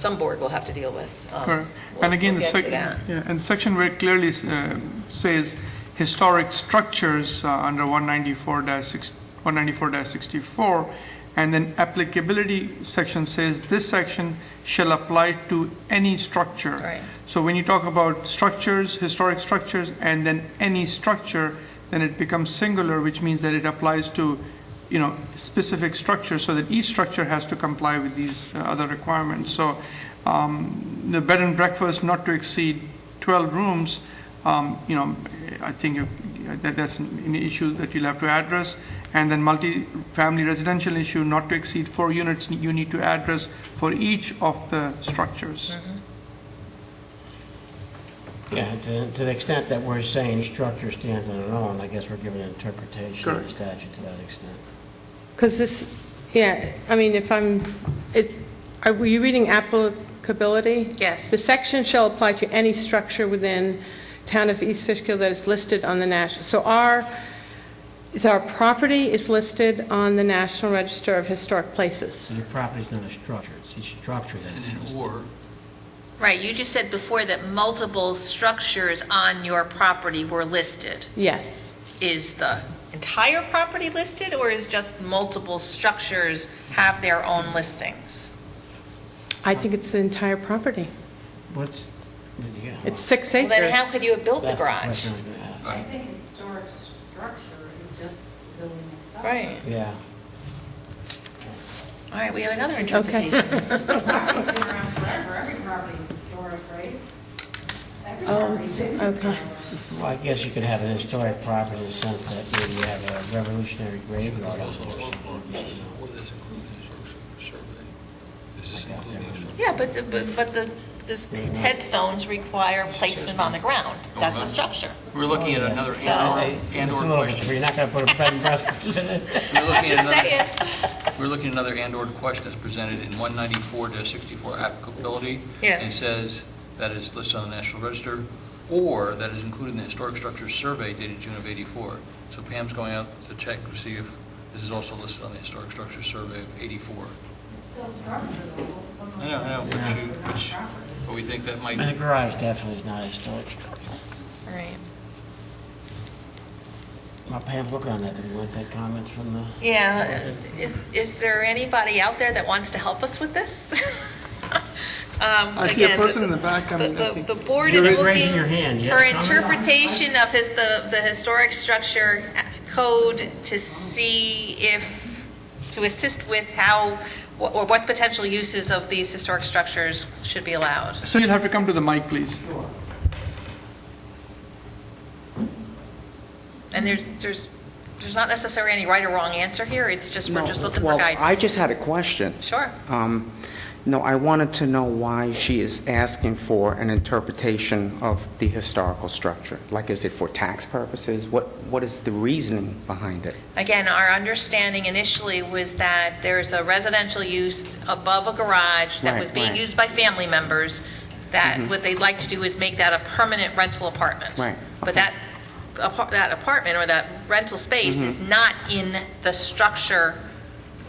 some board will have to deal with. Um, Correct. we'll- And again, the we'll get to section, that. yeah, and the section very clearly uh, says historic structures uh, under 194-6, 194-64, and then applicability section says this section shall apply to any structure. Right. So when you talk about structures, historic structures, and then any structure, then it becomes singular, which means that it applies to, you know, specific structures, so that each structure has to comply with these uh, other requirements. So the bed and breakfast not to exceed 12 rooms, um, you know, I think you- that that's an issue that you'll have to address. And then multi-family residential issue not to exceed four units, you need to address for each of the structures. Yeah, to, to the extent that we're saying structure stands on its own, I guess we're giving an interpretation of the Correct. statute to that extent. Because this, yeah, I mean, if I'm, it, are were you reading applicability? Yes. The section shall apply to any structure within town of East Fishkill that is listed on the national, so our, is our property is listed on the National Register of Historic Places. So your property's not a structure, it's a structure that And is an listed. or, Right, you just said before that multiple structures on your property were listed. Yes. Is the entire property listed, or is just multiple structures have their own listings? I think it's the entire property. What's, yeah. It's six Well, acres. Then how could you have built the That's garage? question I was gonna ask. I think historic structure is just the building itself. Right, Yeah. all right, we have another Okay. interpretation. Property's been around forever, every property is historic, right? Every Oh, property's been okay. around. Well, I guess you could have an historic property in the sense that maybe you have a revolutionary graveyard on it or or, or, something. or this includes a sur- survey? Is this including a survey? Yeah, but, the- but, but the, this- these headstones require placement on the ground. That's a structure. We're looking at Oh, another So- and/or, It's a and/or little bit question. free. You're not going to put a bed and breakfast in it. We're looking I'm at just another- saying. We're looking at another and/or question that's presented in 194-64 applicability. Yes. And says that is listed on the National Register, or that is included in the Historic Structures Survey dated June of 84. So Pam's going out to check to see if this is also listed on the Historic Structures Survey of 84. It's still structure though. I know, I know, but Yeah. you, but you- but we think that might, And the garage definitely is not a historic structure. Right. Well, Pam, look on that. Did you want that comment from the? Yeah, is, is there anybody out there that wants to help us with this? Um, I see a person in the back, I mean, I think- The board You're is raising your hand, looking yeah. for interpretation of his, the, the historic structure code to see if, to assist with how, or what potential uses of these historic structures should be allowed. So you'll have to come to the mic, please. And there's, there's, there's not necessarily any right or wrong answer here, it's just, we're just looking for guidance. Well, I just had a question. Sure. Um, No, I wanted to know why she is asking for an interpretation of the historical structure. Like, is it for tax purposes? What What is the reasoning behind it? Again, our understanding initially was that there's a residential use above a garage that Right, was being right. Mm-hmm. used by family members, that what they'd like to do is make that a permanent rental apartment. Right, But okay. that, apar- that apartment or that rental Mm-hmm. space is not in the structure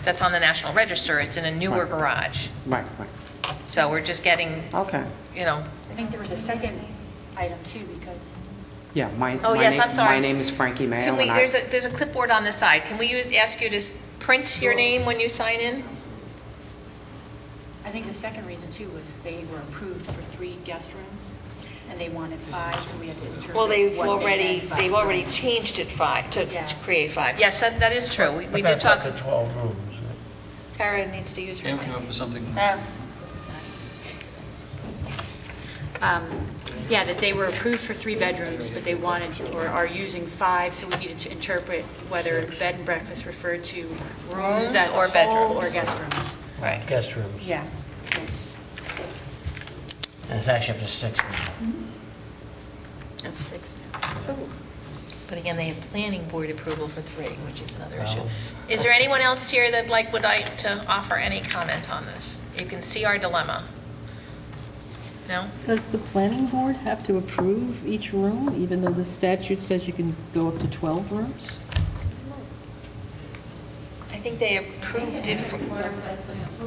that's on the National Register, it's in a newer Right. garage. Right, right. So we're just getting, Okay. you know, I think there was a second item too, because Yeah, my... Oh, my yes, name- I'm sorry. My name is Frankie Mayo. can we, and I- there's a, there's a clipboard on the side, can we use, ask you to s- print your name when you sign in? I think the second reason too was they were approved for three guest rooms, and they wanted five, so we had to interpret Well, what they they've already, meant by they've already five. changed it five, to Yeah. to create five. Yes, that, that is true. We we did That's up talk, to 12 rooms. Tara needs to use her Um, Pam came up with something. mic. Um, Yeah, that they were approved for three bedrooms, but they wanted, or are using five, so we needed to interpret whether bed and breakfast referred to Rooms rooms as a or whole bedrooms. or guest rooms. Right. Guest rooms. Yeah. And it's actually up to six now. Of six now. But again, they have planning board approval for three, which is another Oh. issue. Is there anyone else here that like, would like to offer any comment on this? You can see our dilemma. No? Does the planning board have to approve each room, even though the statute says you can go up to 12 rooms? I think they approved it, for-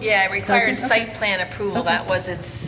yeah, it requires Doesn't- okay. site plan approval, that was its